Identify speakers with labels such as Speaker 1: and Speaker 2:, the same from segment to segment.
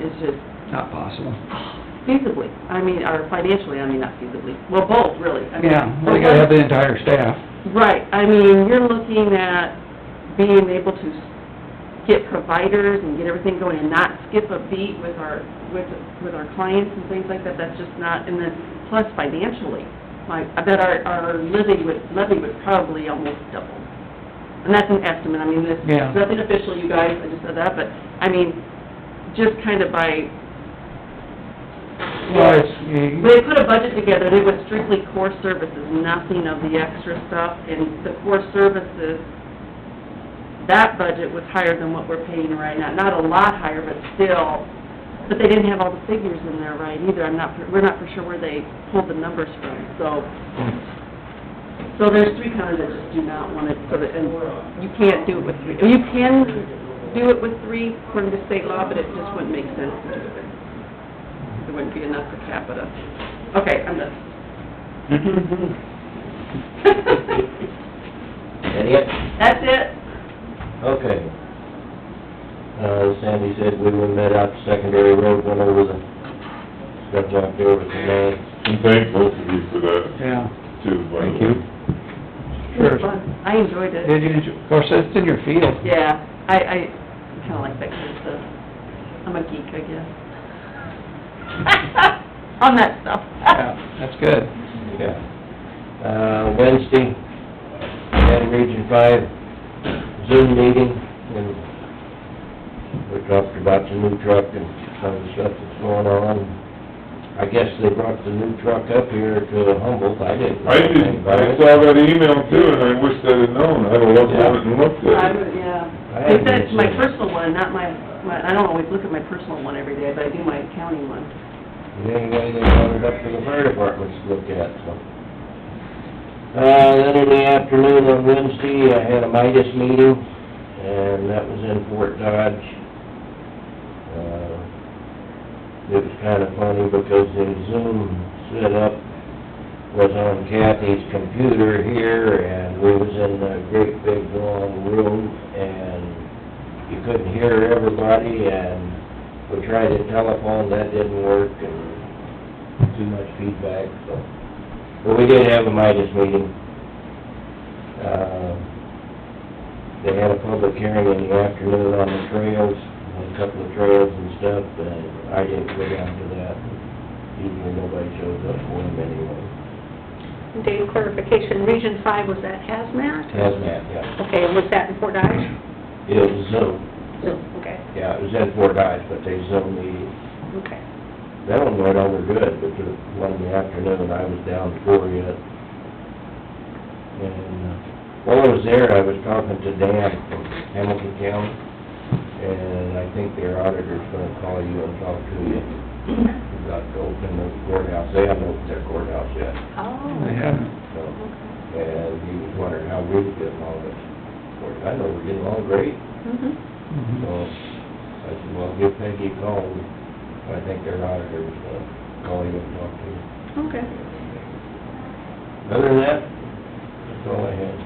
Speaker 1: just
Speaker 2: Not possible.
Speaker 1: feasibly, I mean, or financially, I mean, not feasibly, well, both, really. I mean,
Speaker 2: Yeah, well, you gotta have the entire staff.
Speaker 1: Right, I mean, you're looking at being able to get providers and get everything going and not skip a beat with our, with, with our clients and things like that, that's just not, and then, plus financially, like, I bet our, our levy would, levy would probably almost double. And that's an estimate, I mean, this,
Speaker 2: Yeah.
Speaker 1: nothing official, you guys, I just said that, but, I mean, just kind of by
Speaker 2: Well, it's, you-
Speaker 1: they put a budget together, and it was strictly core services, nothing of the extra stuff, and the core services, that budget was higher than what we're paying right now, not a lot higher, but still, but they didn't have all the figures in there right either, I'm not, we're not for sure where they pulled the numbers from, so, so there's three counties that just do not want it, so that, and you can't do it with three, you can do it with three according to state law, but it just wouldn't make sense to do it there it wouldn't be enough per capita. Okay, I'm done.
Speaker 3: That it?
Speaker 1: That's it.
Speaker 3: Okay. Uh, Sandy said we would met out to secondary road, went over the, got jumped over the man.
Speaker 4: And thank both of you for that,
Speaker 2: yeah,
Speaker 4: too, by the way.
Speaker 3: Thank you.
Speaker 1: It was fun. I enjoyed it.
Speaker 2: did you, enjoy- of course, that's in your field.
Speaker 1: Yeah, I, I kinda like that kind of stuff. I'm a geek, I guess. On that stuff.
Speaker 2: Yeah, that's good.
Speaker 3: Yeah. Uh, Wednesday, we had a Region Five Zoom meeting, and we talked about the new truck and some of the stuff that's going on. I guess they brought the new truck up here to Humboldt, I didn't. know
Speaker 4: I
Speaker 3: anything
Speaker 4: did,
Speaker 3: about
Speaker 4: I
Speaker 3: it.
Speaker 4: saw that email too, and I wish I'd have known, I'd have looked at it and looked
Speaker 1: I,
Speaker 4: at it.
Speaker 1: would-
Speaker 3: I
Speaker 1: yeah. They said it's my
Speaker 3: haven't seen it.
Speaker 1: personal one, not my, my, I don't always look at my personal one every day, but I do my accounting one.
Speaker 3: And Anyway, they brought it up to the fire department to look at, so. Uh, then in the afternoon on Wednesday, I had a Midas meeting, and that was in Fort Dodge. Uh, It was kinda funny because the Zoom setup was on Kathy's computer here, and we was in a great big long room, and you couldn't hear everybody, and we tried a telephone, that didn't work, and too much feedback, so. But we did have a Midas meeting. Uh, They had a public hearing in the afternoon on the trails, on a couple of trails and stuff, and I didn't go down to that. Usually nobody shows up for them anyway.
Speaker 5: Dave, clarification, Region Five, was that hazmat?
Speaker 3: Hazmat, yeah.
Speaker 5: Okay, and was that in Fort Dodge?
Speaker 3: It was Zoom,
Speaker 5: Okay,
Speaker 3: yeah, it was in Fort Dodge, but they Zoomed the
Speaker 5: okay.
Speaker 3: That one went over good, but the one in the afternoon, I was down for yet. And uh, while I was there, I was talking to Dan from Hamilton County, and I think their auditor's gonna call you and talk to you about opening the courthouse. They haven't opened their courthouse yet,
Speaker 2: They
Speaker 5: Oh,
Speaker 2: haven't,
Speaker 3: so,
Speaker 5: okay.
Speaker 3: and he was wondering how we were getting along with it. Of course, I know we're getting along great,
Speaker 5: Mhm.
Speaker 3: so
Speaker 2: mhm.
Speaker 3: I said, well, give Peggy a call, I think their auditor was gonna call you and talk to you.
Speaker 5: Okay.
Speaker 3: Other than that, that's all I had.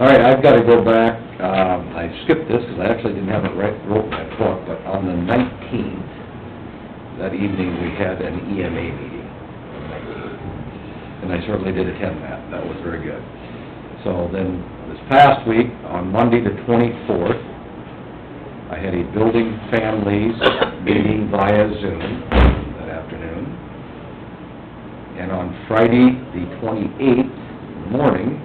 Speaker 6: All right, I've gotta go back, um, I skipped this, 'cause I actually didn't have it right, wrote in my book, but on the nineteenth, that evening, we had an EMA meeting, on the 19th. and I certainly did attend that, that was very good. So then, this past week, on Monday the twenty-fourth, I had a building families meeting via Zoom that afternoon. And on Friday, the twenty-eighth, morning,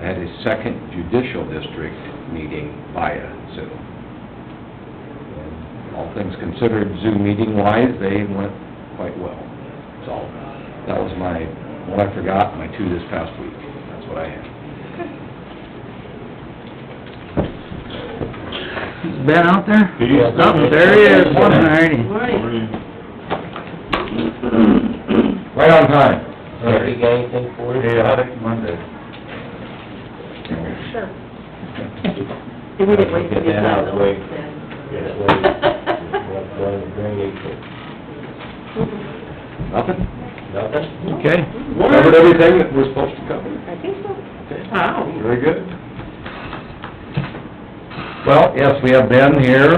Speaker 6: I had a second judicial district meeting via Zoom. And All things considered, Zoom meeting-wise, they went quite well. So, that was my, one I forgot, my two this past week. That's what I had.
Speaker 2: He's been out there?
Speaker 4: He's done
Speaker 2: Oh,
Speaker 4: it.
Speaker 2: there he is, alrighty.
Speaker 1: Morning.
Speaker 6: Right on time.
Speaker 3: Have you got anything for us?
Speaker 6: Monday.
Speaker 5: Sure.
Speaker 1: And we didn't wait for
Speaker 3: Get
Speaker 1: the
Speaker 3: that out of the way.
Speaker 1: time.
Speaker 3: Yes, well, we're going to drainage,
Speaker 6: Nothing?
Speaker 3: but nothing?
Speaker 2: Okay.
Speaker 6: Covered everything that we're supposed to cover?
Speaker 5: I think so.
Speaker 1: Wow.
Speaker 6: Very good. Well, yes, we have Ben here,